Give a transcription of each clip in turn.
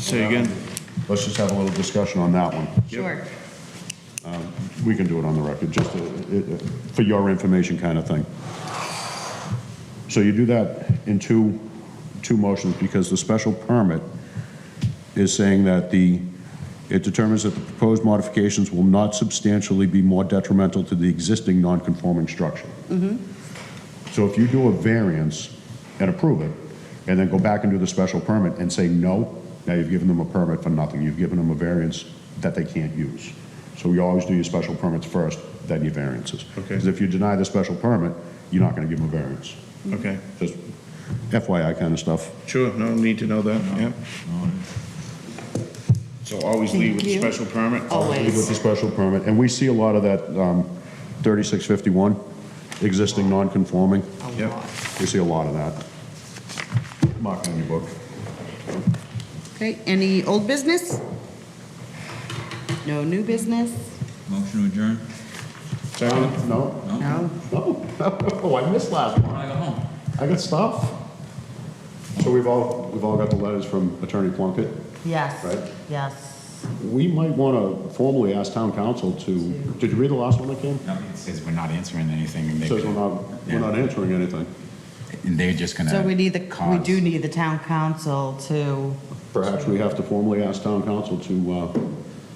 Say again? Let's just have a little discussion on that one. Sure. We can do it on the record, just uh, it- uh, for your information kind of thing. So you do that in two, two motions, because the special permit is saying that the, it determines that the proposed modifications will not substantially be more detrimental to the existing non-conforming structure. So if you do a variance and approve it, and then go back and do the special permit and say no, now you've given them a permit for nothing. You've given them a variance that they can't use. So you always do your special permits first, then your variances. Okay. Because if you deny the special permit, you're not going to give them a variance. Okay, Just FYI kind of stuff. sure, no need to know that, yeah. So always leave with the Thank you. special permit? With Always. the special permit, and we see a lot of that um, 3651, existing non-conforming. A Yep. lot. We see a lot of that. Mark it in your book. Okay, any old business? No new business? Motion to adjourn. Second? No? No? No. Oh, I missed last one. When I go home. I got stuff. So we've all, we've all got the letters from Attorney Plunkett. Right. Yes, yes. We might want to formally ask town council to, did you read the last one that came? No, it says we're not answering anything, and they, Says we're not, we're not answering anything. and they're just gonna. So we need the, we cause- do need the town council to, Perhaps we have to formally ask town council to uh,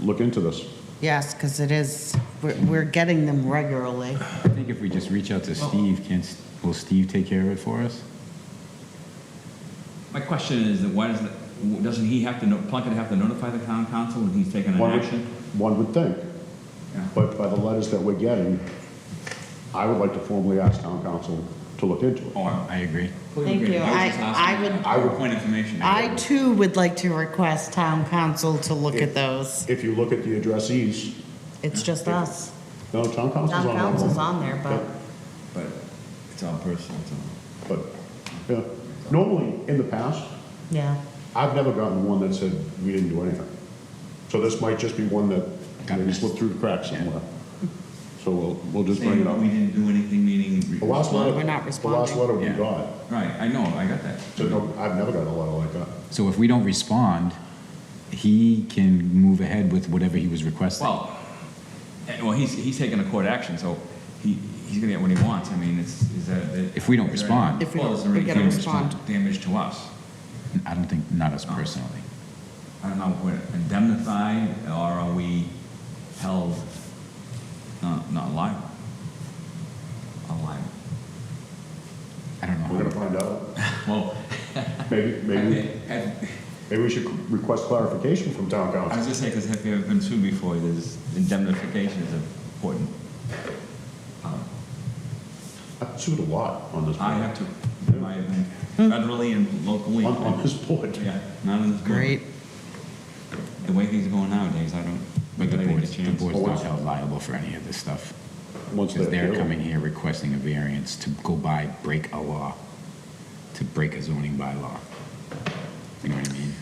look into this. yes, because it is, we're, we're getting them regularly. I think if we just reach out to Steve, can, S- will Steve take care of it for us? My question is that why does the, w- doesn't he have to, no- Plunkett have to notify the town council when he's taking an One would- action? One would think, Yeah. but by the letters that we're getting, I would like to formally ask town council to look into it. Oh, I I agree. Thank you. I- I would- I would point information. I too would like to request town council to look at those. If you look at the addressees, It's just us. no, town council's on Town that one. council's on there, but. But it's all personal, it's all. But, yeah, normally, in the past, Yeah, I've never gotten one that said, we didn't do anything. So this might just be one that Got maybe missed. slipped through the cracks somewhere. So we'll, we'll just bring Saying it up. we didn't do anything, meaning. The last letter, We're not the last responding. letter we Yeah. got, Right, I know, I got that. so no, I've never gotten a letter like that. So if we don't respond, he can move ahead with whatever he was requesting. Well, eh, well, he's, he's taking a court action, so he, he's gonna get what he wants, I mean, it's, is that. it- If we don't is there respond. any- If we well, don't- is there we any gotta damage respond. Damage to us. I don't think, not us personally. I don't know, if we're indemnified or are we held, not, not liable? Not liable. I don't We're know. gonna how- find out. Well, Maybe, maybe, have- have- maybe we should request clarification from town I council. was just saying, because have you ever been sued before, there's indemnification is important. Um, I've sued a lot on this. I board. have to, I have been federally and locally. On, on this board. Yeah, not in this board. great. The way things are going nowadays, I don't, But the I think it's board's, the changed. board's not held liable for any of this stuff. Once Because they're appeal. coming here requesting a variance to go by, break a law, to break a zoning bylaw. You know what I mean?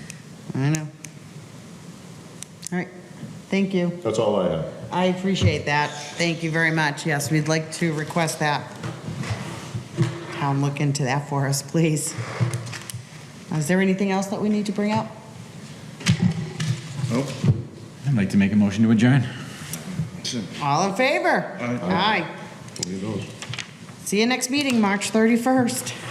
I know. All right, thank you. That's all I have. I appreciate that. Thank you very much. Yes, we'd like to request that. Town look into that for us, please. Is there anything else that we need to bring up? Nope. I'd like to make a motion to adjourn. All in favor? Aye. Aye. See you next meeting, March 31st.